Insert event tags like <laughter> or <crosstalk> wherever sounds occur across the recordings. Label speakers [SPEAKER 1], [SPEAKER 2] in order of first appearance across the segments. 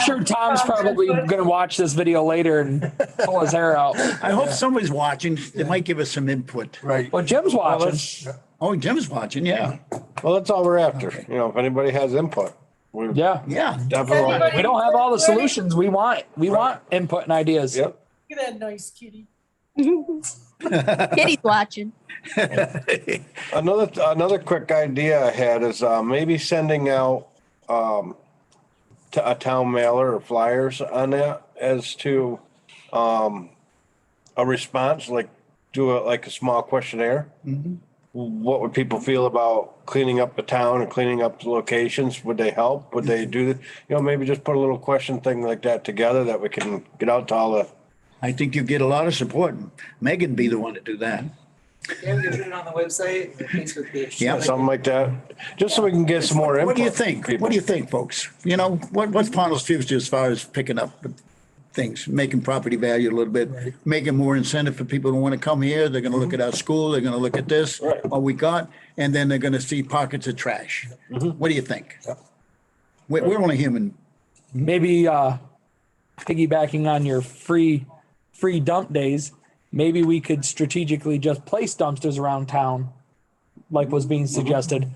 [SPEAKER 1] sure Tom's probably gonna watch this video later and pull his hair out.
[SPEAKER 2] I hope somebody's watching. They might give us some input.
[SPEAKER 3] Right.
[SPEAKER 1] Well, Jim's watching.
[SPEAKER 3] let's-
[SPEAKER 2] Oh, Jim's watching, yeah.
[SPEAKER 3] Well, that's all we're after. You know, if anybody has input. we're
[SPEAKER 1] Yeah.
[SPEAKER 2] Yeah,
[SPEAKER 3] Definitely.
[SPEAKER 1] We don't have all the solutions. We want, we want input and ideas.
[SPEAKER 3] Yep.
[SPEAKER 4] Look at that nice kitty.
[SPEAKER 5] Kitty's watching.
[SPEAKER 3] Another, another quick idea I had is, uh, maybe sending out, um, to a town mailer or flyers on that as to, um, a response, like, do a, like a small questionnaire. What would people feel about cleaning up the town and cleaning up the locations? Would they help? Would they do, the- you know, maybe just put a little question thing like that together that we can get out to all the,
[SPEAKER 2] I think you get a lot of support. Megan be the one to do that.
[SPEAKER 6] Yeah, we can put it on the website, the Facebook page.
[SPEAKER 2] Yeah.
[SPEAKER 3] something like that, just so we can get some more input.
[SPEAKER 2] What do you think?
[SPEAKER 3] from people.
[SPEAKER 2] What do you think, folks? You know, what, what's Pownell's future as far as picking up things, making property value a little bit, making more incentive for people who want to come here. They're going to look at our school. They're going to look at this,
[SPEAKER 3] Mm-hmm. Right.
[SPEAKER 2] what we got, and then they're going to see pockets of trash.
[SPEAKER 3] Mm-hmm.
[SPEAKER 2] What do you think? We're, we're only human.
[SPEAKER 1] Maybe, uh, piggybacking on your free, free dump days, maybe we could strategically just place dumpsters around town, like was being
[SPEAKER 3] Mm-hmm.
[SPEAKER 1] suggested,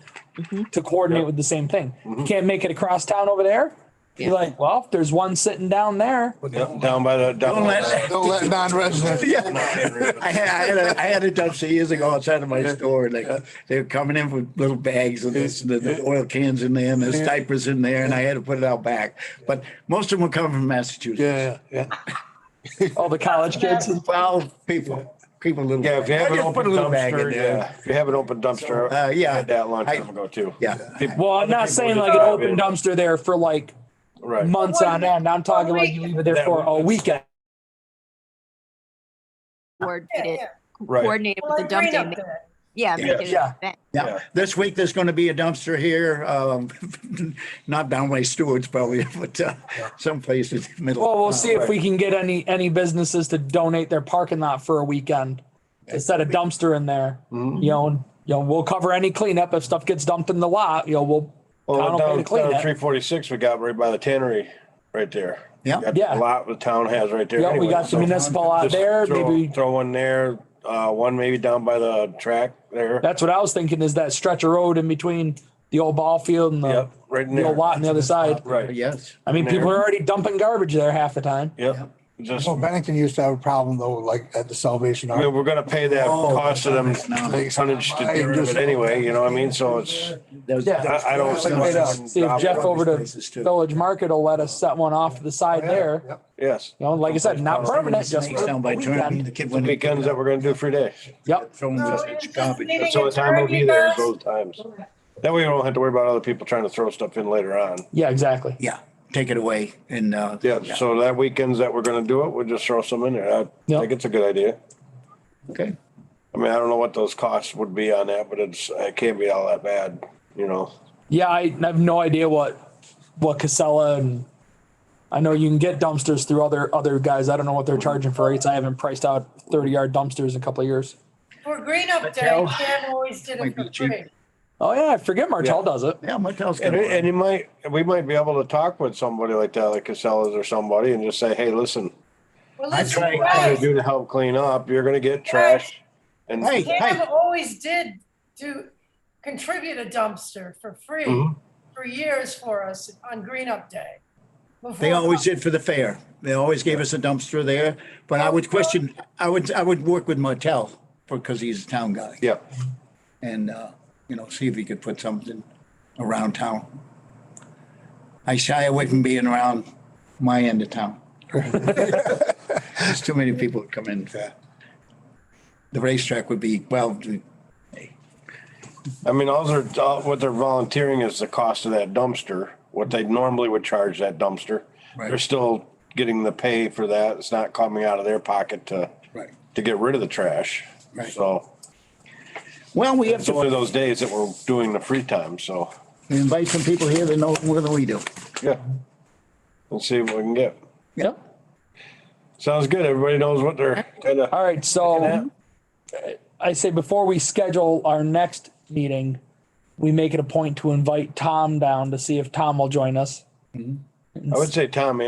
[SPEAKER 1] to coordinate with the same thing. You can't make it across town over there. You're like, well, if there's one sitting down there,
[SPEAKER 3] Yeah, Down by the, down.
[SPEAKER 2] Don't let-
[SPEAKER 3] Don't let non-residents.
[SPEAKER 2] Yeah. I had, I had, a, I had a dumpster years ago outside of my store. Like they were coming in with little bags of this, the, the oil cans in there, and there's diapers in there, and I had to put it out back. But most of them were coming from Massachusetts.
[SPEAKER 3] Yeah,
[SPEAKER 2] <laughs>
[SPEAKER 3] yeah.
[SPEAKER 1] all the college kids.
[SPEAKER 2] Well, people, people a little.
[SPEAKER 3] Yeah, if you have
[SPEAKER 2] I
[SPEAKER 3] an
[SPEAKER 2] just put
[SPEAKER 3] open
[SPEAKER 2] a little bag in
[SPEAKER 3] dumpster,
[SPEAKER 2] there.
[SPEAKER 3] yeah, if you have an open dumpster.
[SPEAKER 2] Uh, yeah.
[SPEAKER 3] I had That a long
[SPEAKER 2] I-
[SPEAKER 3] time ago too.
[SPEAKER 2] Yeah,
[SPEAKER 1] Well, I'm not saying like an open dumpster there for like
[SPEAKER 3] Right.
[SPEAKER 1] months on end. I'm talking like you leave it there for a weekend.
[SPEAKER 4] Yeah,
[SPEAKER 5] Coordinated,
[SPEAKER 4] yeah.
[SPEAKER 3] Right.
[SPEAKER 5] coordinated
[SPEAKER 4] Well,
[SPEAKER 5] with
[SPEAKER 4] I
[SPEAKER 5] the
[SPEAKER 4] bring
[SPEAKER 5] dump
[SPEAKER 4] it
[SPEAKER 5] day.
[SPEAKER 4] up
[SPEAKER 5] ma-
[SPEAKER 4] there.
[SPEAKER 5] Yeah.
[SPEAKER 3] Yeah.
[SPEAKER 5] make it an
[SPEAKER 1] Yeah.
[SPEAKER 5] event.
[SPEAKER 2] yeah. This week, there's going to be a dumpster here, um, <laughs> not down by Stewart's probably, <laughs> but uh, someplace in the middle. Uh,
[SPEAKER 1] Well, we'll see if we can get any, any businesses to donate their parking lot for a weekend. to set a dumpster in there,
[SPEAKER 3] Mm-hmm.
[SPEAKER 1] you know, and, you know, we'll cover any cleanup. If stuff gets dumped in the lot, you know, we'll.
[SPEAKER 3] Well,
[SPEAKER 1] town will pay to
[SPEAKER 3] down,
[SPEAKER 1] clean it.
[SPEAKER 3] down three forty-six, we got right by the tannery, right there.
[SPEAKER 2] Yeah.
[SPEAKER 3] Got
[SPEAKER 1] Yeah.
[SPEAKER 3] A lot the town has right there.
[SPEAKER 1] Yeah, we
[SPEAKER 3] anyway,
[SPEAKER 1] got the
[SPEAKER 3] so
[SPEAKER 1] municipal out
[SPEAKER 3] just
[SPEAKER 1] there,
[SPEAKER 3] throw-
[SPEAKER 1] maybe,
[SPEAKER 3] Throw one there, uh, one maybe down by the track there.
[SPEAKER 1] that's what I was thinking is that stretch of road in between the old ball field and the,
[SPEAKER 3] Yep, right in
[SPEAKER 1] the old
[SPEAKER 3] there.
[SPEAKER 1] lot on the other side.
[SPEAKER 3] Right.
[SPEAKER 2] Yes.
[SPEAKER 1] I mean, people are already dumping garbage there half the time.
[SPEAKER 3] Yep. Just,
[SPEAKER 7] So
[SPEAKER 2] Oh,
[SPEAKER 3] I
[SPEAKER 7] Bennington used to have a problem though, like at the Salvation
[SPEAKER 3] mean,
[SPEAKER 7] Army.
[SPEAKER 3] we're gonna pay that
[SPEAKER 2] Oh,
[SPEAKER 3] cost to them
[SPEAKER 2] no.
[SPEAKER 3] tonnage to do it anyway, you know what I mean? So it's,
[SPEAKER 2] That was-
[SPEAKER 1] Yeah.
[SPEAKER 3] I, I don't.
[SPEAKER 7] Like right up.
[SPEAKER 1] See if Jeff over to Village Market will let us set one off to the side there. You
[SPEAKER 7] Yep.
[SPEAKER 3] Yes.
[SPEAKER 1] know, like I said, not permanent, just
[SPEAKER 2] Snakes
[SPEAKER 1] for a
[SPEAKER 2] down by Trinity, the
[SPEAKER 1] weekend.
[SPEAKER 2] kid went.
[SPEAKER 3] Weekends that we're gonna do free days.
[SPEAKER 1] Yep.
[SPEAKER 2] Throw them
[SPEAKER 4] So
[SPEAKER 2] with
[SPEAKER 4] it's just
[SPEAKER 2] garbage.
[SPEAKER 4] needing
[SPEAKER 3] So the time will
[SPEAKER 4] attorney
[SPEAKER 3] be there is
[SPEAKER 4] guys.
[SPEAKER 3] those times. That way we don't have to worry about other people trying to throw stuff in later on.
[SPEAKER 1] Yeah, exactly.
[SPEAKER 2] Yeah, take it away and, uh.
[SPEAKER 3] Yeah, so that weekends that we're gonna do it, we'll just throw some in there. I
[SPEAKER 1] Yeah.
[SPEAKER 3] think it's a good idea.
[SPEAKER 2] Okay.
[SPEAKER 3] I mean, I don't know what those costs would be on that, but it's, it can't be all that bad, you know?
[SPEAKER 1] Yeah, I have no idea what, what Casella and I know you can get dumpsters through other, other guys. I don't know what they're charging for rates. I haven't priced out thirty yard dumpsters in a couple of years.
[SPEAKER 4] For green up
[SPEAKER 2] Patel.
[SPEAKER 4] day, Cam always did
[SPEAKER 2] Might
[SPEAKER 4] it
[SPEAKER 2] be
[SPEAKER 4] for
[SPEAKER 2] cheap.
[SPEAKER 4] free.
[SPEAKER 1] Oh yeah, I forget Martell
[SPEAKER 3] Yeah.
[SPEAKER 1] does it.
[SPEAKER 2] Yeah, my house.
[SPEAKER 3] And, it- and you might, we might be able to talk with somebody like that, like Casellas or somebody and just say, hey, listen,
[SPEAKER 4] Well,
[SPEAKER 2] I
[SPEAKER 4] listen,
[SPEAKER 2] tried-
[SPEAKER 4] you
[SPEAKER 3] what I'm gonna
[SPEAKER 4] guys,
[SPEAKER 3] do to help clean up, you're gonna get trash. And
[SPEAKER 2] Hey.
[SPEAKER 4] Cam always did do, contribute a dumpster for free
[SPEAKER 2] Mm-hmm.
[SPEAKER 3] Mhm.
[SPEAKER 4] for years for us on green up day.
[SPEAKER 2] They
[SPEAKER 4] Before-
[SPEAKER 2] always did for the fair. They always gave us a dumpster there, but I would question, I would, I would work with Martell because he's a town guy.
[SPEAKER 3] yeah,
[SPEAKER 2] And, uh, you know, see if he could put something around town. I shy away from being around my end of town. There's too many people that come in. The racetrack would be, well,
[SPEAKER 3] I mean, all they're, all- what they're volunteering is the cost of that dumpster, what they normally would charge that dumpster.
[SPEAKER 2] Right.
[SPEAKER 3] They're still getting the pay for that. It's not coming out of their pocket to,
[SPEAKER 2] Right.
[SPEAKER 3] to get rid of the trash.
[SPEAKER 2] Right.
[SPEAKER 3] So
[SPEAKER 2] well, we have
[SPEAKER 3] it's one of
[SPEAKER 2] to
[SPEAKER 3] those days that we're doing the free time, so,
[SPEAKER 2] invite some people here that know more than we do.
[SPEAKER 3] yeah. Let's see what we can get.
[SPEAKER 1] Yep.
[SPEAKER 3] Sounds good. Everybody knows what they're gonna,
[SPEAKER 1] All right, so I say before we schedule our next meeting, we make it a point to invite Tom down to see if Tom will join us.
[SPEAKER 3] I would say Tom